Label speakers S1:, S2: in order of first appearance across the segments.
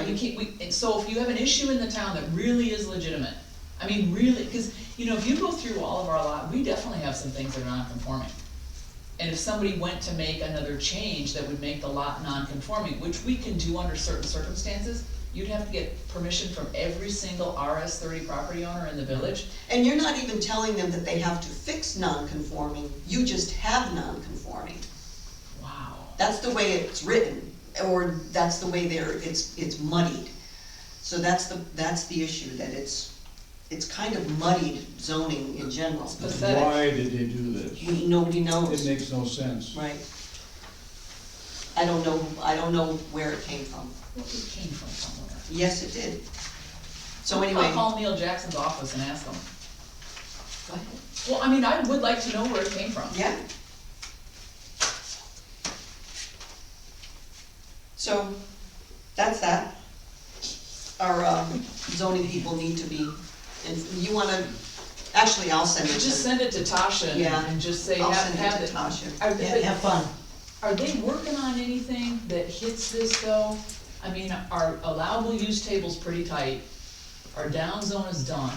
S1: we keep, we, and so if you have an issue in the town that really is legitimate, I mean, really, cause, you know, if you go through all of our lot, we definitely have some things that are non-conforming. And if somebody went to make another change that would make the lot non-conforming, which we can do under certain circumstances, you'd have to get permission from every single RS thirty property owner in the village.
S2: And you're not even telling them that they have to fix non-conforming, you just have non-conforming.
S1: Wow.
S2: That's the way it's written, or that's the way there, it's, it's muddied. So that's the, that's the issue, that it's, it's kind of muddied zoning in general.
S1: Pathetic.
S3: Why did they do this?
S2: We- Nobody
S3: It
S2: knows,
S3: makes no sense.
S2: right? I don't know, I don't know where it came from.
S1: Well, it came from somewhere.
S2: Yes, it did. So
S1: I'll
S2: anyway,
S1: call Neil Jackson's office and ask him.
S2: go ahead.
S1: Well, I mean, I would like to know where it came from.
S2: Yeah. So, that's that. Our um, zoning people need to be, and you wanna, actually, I'll send it
S1: Just
S2: to,
S1: send it to Tasha and-
S2: Yeah.
S1: and just say,
S2: I'll
S1: have,
S2: send
S1: have
S2: it
S1: it.
S2: to Tasha.
S1: Are
S4: Yeah,
S1: they,
S4: have fun.
S1: are they working on anything that hits this though? I mean, our allowable use table's pretty tight, our down zone is done.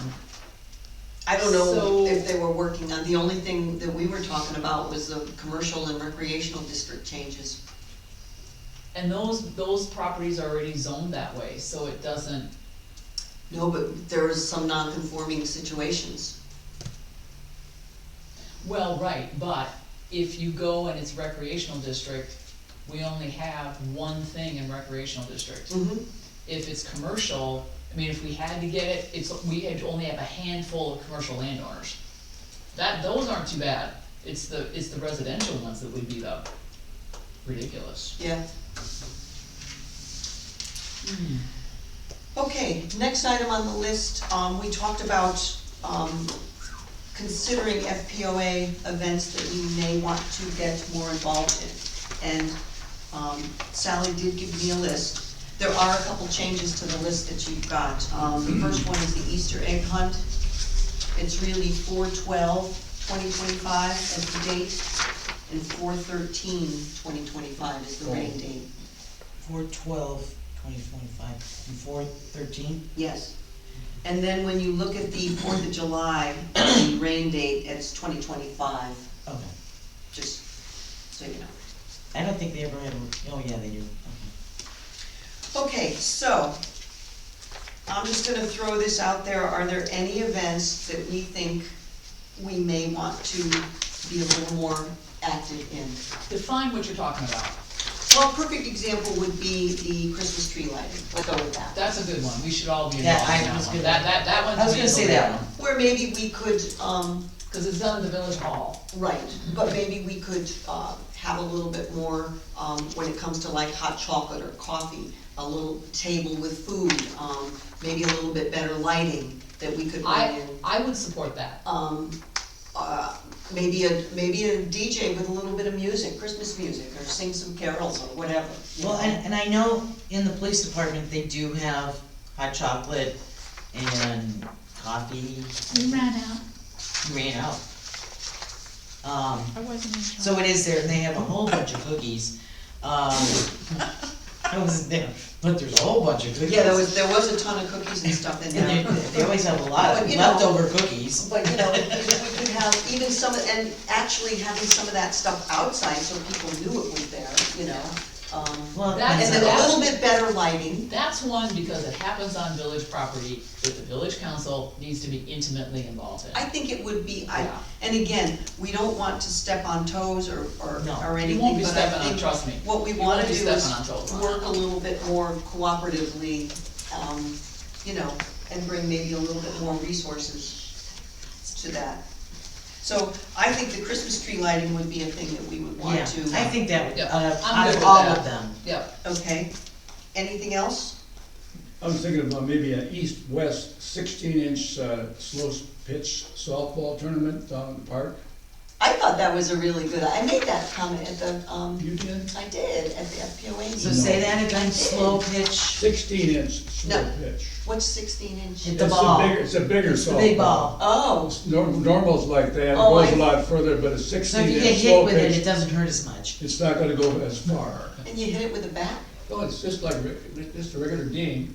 S2: I don't know
S1: So-
S2: if they were working on, the only thing that we were talking about was the commercial and recreational district changes.
S1: And those, those properties are already zoned that way, so it doesn't,
S2: No, but there was some non-conforming situations.
S1: well, right, but if you go and it's recreational district, we only have one thing in recreational district.
S2: Mm-hmm.
S1: if it's commercial, I mean, if we had to get it, it's, we had only have a handful of commercial landowners. That, those aren't too bad, it's the, it's the residential ones that we beat up. Ridiculous.
S2: Yeah. Okay, next item on the list, um, we talked about, um, considering FPOA events that we may want to get more involved in. And, um, Sally did give me a list. There are a couple changes to the list that you've got. Um, the first one is the Easter egg hunt. It's really 4/12, 2025 as the date, and 4/13, 2025 is the rain date.
S4: Four twelve, twenty twenty-five, and four thirteen?
S2: Yes. And then when you look at the Fourth of July, the rain date, it's twenty twenty-five,
S4: Okay.
S2: just so you know.
S4: I don't think they ever had, a- oh, yeah, they do. Okay.
S2: Okay, so, I'm just gonna throw this out there, are there any events that we think we may want to be a little more active in?
S1: Define what you're talking about,
S2: Well, a perfect example would be the Christmas tree lighting, let's go with that.
S1: that's a good one, we should all be
S4: Yeah,
S1: involved in
S4: I
S1: that
S4: was
S1: one,
S4: gonna-
S1: that, that, that one's.
S4: I was
S1: a
S4: gonna say
S1: vehicle.
S4: that one.
S2: Where maybe we could, um,
S1: Cause it's done in the village hall,
S2: Right, but maybe we could, uh, have a little bit more, um, when it comes to like hot chocolate or coffee, a little table with food, um, maybe a little bit better lighting that we could bring
S1: I,
S2: in.
S1: I would support that,
S2: Um, uh, maybe a, maybe a DJ with a little bit of music, Christmas music, or sing some carols or whatever. you
S4: Well,
S2: know?
S4: and, and I know in the police department, they do have hot chocolate and coffee.
S5: We ran out,
S4: You Ran out. Um,
S5: I wasn't in charge.
S4: so it is there, and they have a whole bunch of cookies. Um, I wasn't there, but there's a whole bunch of cookies.
S2: Yeah, there was, there was a ton of cookies and stuff in there.
S4: And they, they always have a lot
S2: But,
S4: of
S2: you know-
S4: leftover cookies.
S2: But, you know, we could have even some, of- and actually having some of that stuff outside so people knew it was there, you know? Um,
S4: Well,
S1: That-
S2: And
S4: that's
S2: then a
S4: not-
S2: little bit better lighting,
S1: that's one because it happens on village property that the village council needs to be intimately involved in.
S2: I think it would be, I,
S1: Yeah.
S2: and again, we don't want to step on toes or, or,
S4: No.
S2: or
S1: You
S2: anything,
S1: won't be
S2: but I
S1: stepping on,
S2: think
S1: trust me.
S2: what we
S1: You
S2: wanna
S1: won't
S2: do
S1: be
S2: is
S1: stepping on toes.
S2: work a little bit more cooperatively, um, you know, and bring maybe a little bit more resources to that. So I think the Christmas tree lighting would be a thing that we would want
S4: Yeah,
S2: to. uh,
S4: I think that, would-
S1: Yep,
S4: out of,
S1: I'm
S4: out
S1: good
S4: of
S1: with
S4: all
S1: that.
S4: of them,
S1: Yep,
S2: Okay, anything else?
S3: I was thinking about maybe an east-west sixteen-inch uh, slow pitch softball tournament down in the park.
S2: I thought that was a really good, I made that comment at the, um,
S3: You did?
S2: I did, at the FPOA
S4: so
S2: meeting.
S3: No.
S4: say that again, slow pitch,
S3: Sixteen-inch slow
S2: No.
S3: pitch.
S2: What's sixteen inch?
S4: Hit the
S3: It's a
S4: ball.
S3: bigger- It's a bigger
S4: It's the
S3: softball.
S4: big ball.
S2: Oh,
S3: Nor- Normal's like that, it
S2: Oh,
S3: goes
S2: I-
S3: a lot further, but a
S4: so if you
S3: sixteen-inch
S4: get hit
S3: slow
S4: with it, it
S3: pitch,
S4: doesn't hurt as much.
S3: it's not gonna go as far.
S2: and you hit it with a bat?
S3: Well, it's just like, re- just a regular game,